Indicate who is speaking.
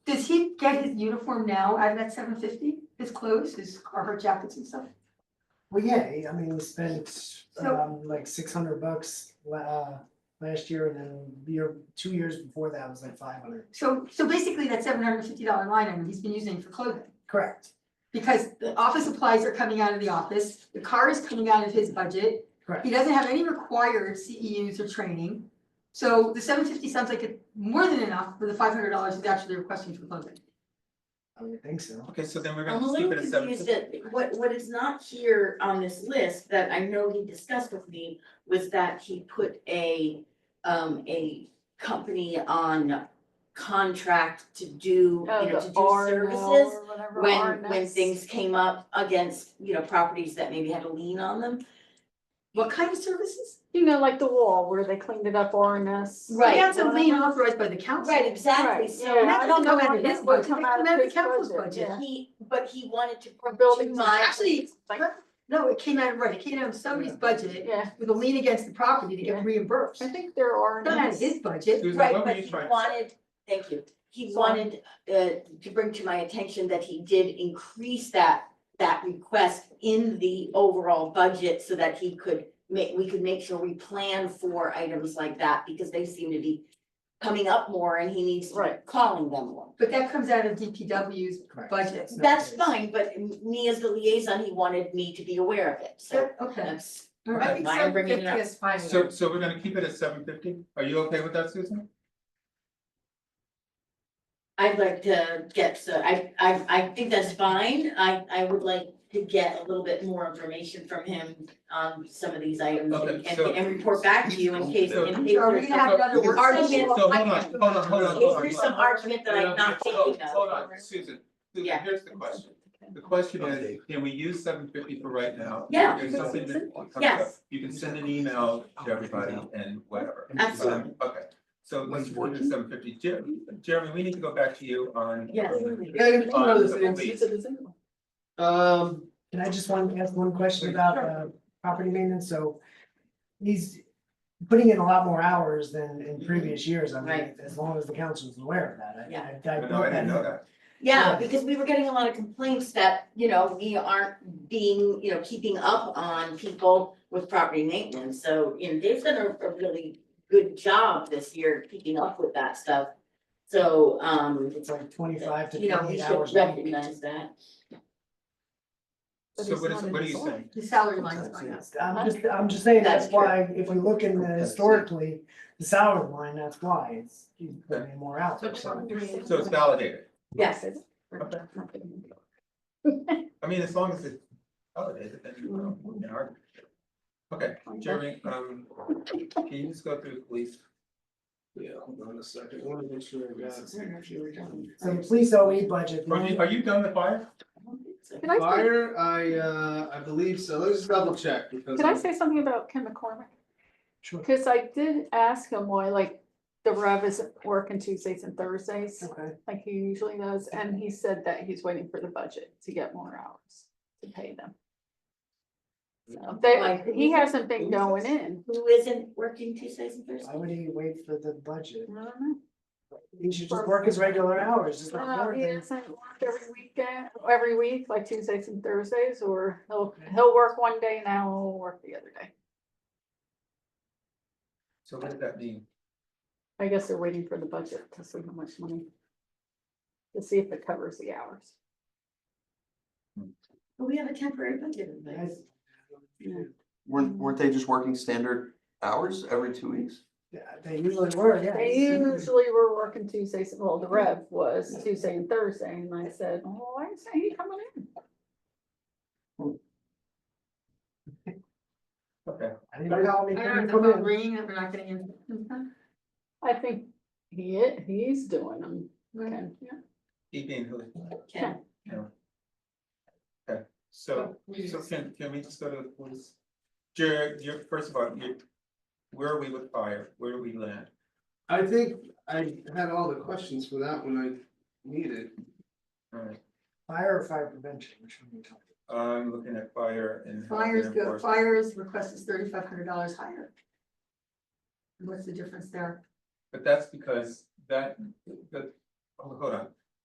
Speaker 1: get his uniform now out of that seven fifty, his clothes, his Carhartt jackets and stuff?
Speaker 2: Well, yeah, he- I mean, we spent
Speaker 1: So-
Speaker 2: um like six hundred bucks la- uh last year and then the year, two years before that was like five hundred.
Speaker 1: So, so basically that seven hundred and fifty dollar line item he's been using for clothing.
Speaker 2: Correct,
Speaker 1: Because the office supplies are coming out of the office, the car is coming out of his budget.
Speaker 2: correct.
Speaker 1: He doesn't have any required CEUs or training. So the seven fifty sounds like it's more than enough for the five hundred dollars he's actually requesting for clothing.
Speaker 2: I would think so.
Speaker 3: Okay, so then we're
Speaker 4: I'm
Speaker 3: gonna
Speaker 4: a
Speaker 3: just keep
Speaker 4: little
Speaker 3: it at seven
Speaker 4: confused
Speaker 3: fifty.
Speaker 4: that what what is not here on this list that I know he discussed with me was that he put a um a company on contract to do, you
Speaker 5: Oh,
Speaker 4: know,
Speaker 5: the
Speaker 4: to do
Speaker 5: R and L
Speaker 4: services
Speaker 5: or whatever, R
Speaker 4: when
Speaker 5: and
Speaker 4: when
Speaker 5: S.
Speaker 4: things came up against, you know, properties that maybe had a lien on them.
Speaker 1: What kind of services?
Speaker 5: You know, like the wall where they cleaned it up, R and S.
Speaker 4: Right.
Speaker 1: That's a lien authorized by the council.
Speaker 4: Right, exactly,
Speaker 5: Right,
Speaker 4: so.
Speaker 5: yeah.
Speaker 1: And that
Speaker 5: I don't
Speaker 1: doesn't come
Speaker 5: know
Speaker 1: out of
Speaker 5: why
Speaker 1: his
Speaker 5: that would
Speaker 1: budget, that
Speaker 5: come
Speaker 1: comes
Speaker 5: out of
Speaker 1: out of the
Speaker 5: his
Speaker 1: council's
Speaker 5: budget,
Speaker 1: budget.
Speaker 5: yeah.
Speaker 4: He, but he wanted to.
Speaker 5: Or buildings.
Speaker 4: to my-
Speaker 1: Actually,
Speaker 5: Like,
Speaker 1: No, it came out, right, it came out of somebody's
Speaker 2: Yeah.
Speaker 1: budget
Speaker 5: yeah,
Speaker 1: with a lien against the property to
Speaker 5: Yeah.
Speaker 1: get reimbursed.
Speaker 5: I think there are.
Speaker 1: Not out of his budget.
Speaker 3: Susan,
Speaker 4: Right,
Speaker 3: what were
Speaker 4: but
Speaker 3: you
Speaker 4: he
Speaker 3: trying?
Speaker 4: wanted, thank you, he wanted uh to bring to my attention that he did increase that. That request in the overall budget so that he could make, we could make sure we plan for items like that because they seem to be. Coming up more and he needs to be
Speaker 5: Right.
Speaker 4: calling them more.
Speaker 1: But that comes out of DPW's
Speaker 2: Correct.
Speaker 1: budget.
Speaker 2: It's not
Speaker 4: That's
Speaker 2: his.
Speaker 4: fine, but me as the liaison, he wanted me to be aware of it, so
Speaker 1: Okay.
Speaker 4: that's.
Speaker 1: All
Speaker 3: I
Speaker 1: right.
Speaker 4: think Why I'm bringing it up. 750
Speaker 1: fine.
Speaker 3: So, so we're gonna keep it at seven fifty? Are you okay with that, Susan?
Speaker 4: I'd like to get, so I, I, I think that's fine, I, I would like to get a little bit more information from him on some of these items and,
Speaker 3: Okay,
Speaker 4: and,
Speaker 3: so-
Speaker 4: and report back to you in case,
Speaker 3: So-
Speaker 4: in case
Speaker 1: Are we
Speaker 4: there's
Speaker 1: gonna have another work
Speaker 4: Argument.
Speaker 1: session?
Speaker 3: So hold on, hold on, hold on,
Speaker 4: Is
Speaker 3: hold on.
Speaker 4: there some argument that I'm not
Speaker 3: Hold
Speaker 4: thinking
Speaker 3: on,
Speaker 4: of?
Speaker 3: Hold on, Susan, Susan,
Speaker 4: Yeah.
Speaker 3: here's the question. The question is, can we use seven fifty for right now?
Speaker 4: Yeah.
Speaker 3: There's something that comes up.
Speaker 4: Yes.
Speaker 3: You can send an email to everybody and whatever.
Speaker 4: Absolutely.
Speaker 3: Okay, so let's work at seven fifty. Jeremy, Jeremy, we need to go back to you on.
Speaker 4: Yes.
Speaker 6: Yeah, you can
Speaker 3: on
Speaker 6: go to
Speaker 3: the
Speaker 6: the next-
Speaker 3: lease.
Speaker 6: it's a design. Um,
Speaker 2: Can I just want to ask one question about uh property maintenance? So he's putting in a lot more hours than in previous years. I mean,
Speaker 4: Mm-hmm. Right.
Speaker 2: as long as the council's aware of
Speaker 4: Yeah.
Speaker 2: that, I I I
Speaker 3: No, I didn't know that.
Speaker 4: Yeah,
Speaker 2: Yeah.
Speaker 4: because we were getting a lot of complaints that, you know, we aren't being, you know, keeping up on people with property maintenance, so, you know, Dave's done a, a really good job this year keeping up with that stuff. So, um,
Speaker 2: It's like twenty-five to
Speaker 4: you know, we
Speaker 2: twenty-eight
Speaker 4: should
Speaker 2: hours. a week.
Speaker 4: recognize that.
Speaker 5: But
Speaker 3: So
Speaker 5: it's
Speaker 3: what
Speaker 5: not
Speaker 3: is,
Speaker 5: in
Speaker 3: what are
Speaker 5: his
Speaker 3: you
Speaker 5: order.
Speaker 3: saying?
Speaker 1: The salary line is going up.
Speaker 2: I'm just, I'm just saying, that's
Speaker 4: That's true.
Speaker 2: why, if we look in the historically, the salary line, that's why, it's, he's putting in more hours. so.
Speaker 3: So it's validated.
Speaker 4: Yes,
Speaker 3: I mean, as long as it's validated, then you don't argue. Okay, Jeremy, um, can you just go through, please?
Speaker 6: yeah, hold on a second, I wanna make sure I got.
Speaker 4: I don't know if you were done.
Speaker 2: So the police OE budget, the
Speaker 3: Are you,
Speaker 2: only-
Speaker 3: are you done with fire?
Speaker 5: Can I say,
Speaker 6: Fire, I uh, I believe so, let's just double check because.
Speaker 5: can I say something about Ken McCormick?
Speaker 2: Sure.
Speaker 5: Cause I did ask him why, like, the rev isn't working Tuesdays and Thursdays,
Speaker 2: Okay,
Speaker 5: like he usually does, and he said that he's waiting for the budget to get more hours to pay them. So
Speaker 4: Like,
Speaker 5: they,
Speaker 4: who
Speaker 5: he
Speaker 4: is it?
Speaker 5: hasn't been
Speaker 4: Who is
Speaker 5: going
Speaker 4: this?
Speaker 5: in.
Speaker 4: Who isn't working Tuesdays and Thursdays?
Speaker 2: why would he wait for the budget?
Speaker 5: I don't know.
Speaker 2: He should just work his regular hours, just like
Speaker 5: No, Uh, he
Speaker 2: everything.
Speaker 5: doesn't work every weekend, every week, like Tuesdays and Thursdays, or he'll, he'll work one day now, he'll work the other day.
Speaker 3: So what does that mean?
Speaker 5: I guess they're waiting for the budget to see how much money. To see if it covers the hours.
Speaker 4: Well, We have a temporary budget in place.
Speaker 2: Yes.
Speaker 7: Weren't, weren't they just working standard hours every two weeks?
Speaker 2: Yeah, They usually were, yeah.
Speaker 5: They
Speaker 4: Mm-hmm.
Speaker 5: usually were working Tuesdays, well, the rev was Tuesday and Thursday, and I said, oh, why isn't he coming in?
Speaker 3: Okay,
Speaker 2: I didn't know
Speaker 1: I don't
Speaker 2: they
Speaker 1: know,
Speaker 2: couldn't
Speaker 1: the
Speaker 2: come
Speaker 1: phone
Speaker 2: in.
Speaker 1: ringing that we're not getting Mm-hmm. in.
Speaker 5: I think he, i- he's doing them, Ken, yeah.
Speaker 3: he being who?
Speaker 4: Okay.
Speaker 3: Okay, so, so can, can we just go to the police? Jared, you're, first of all, you, where are we with fire? Where do we land?
Speaker 6: I think I had all the questions for that when I needed.
Speaker 3: Alright,
Speaker 2: Fire or fire prevention, which one you talking?
Speaker 3: I'm looking at fire and. housing
Speaker 1: Fires go,
Speaker 3: enforcement.
Speaker 1: fires request is thirty five hundred dollars higher. What's the difference there?
Speaker 3: But that's because that, that, oh, hold on,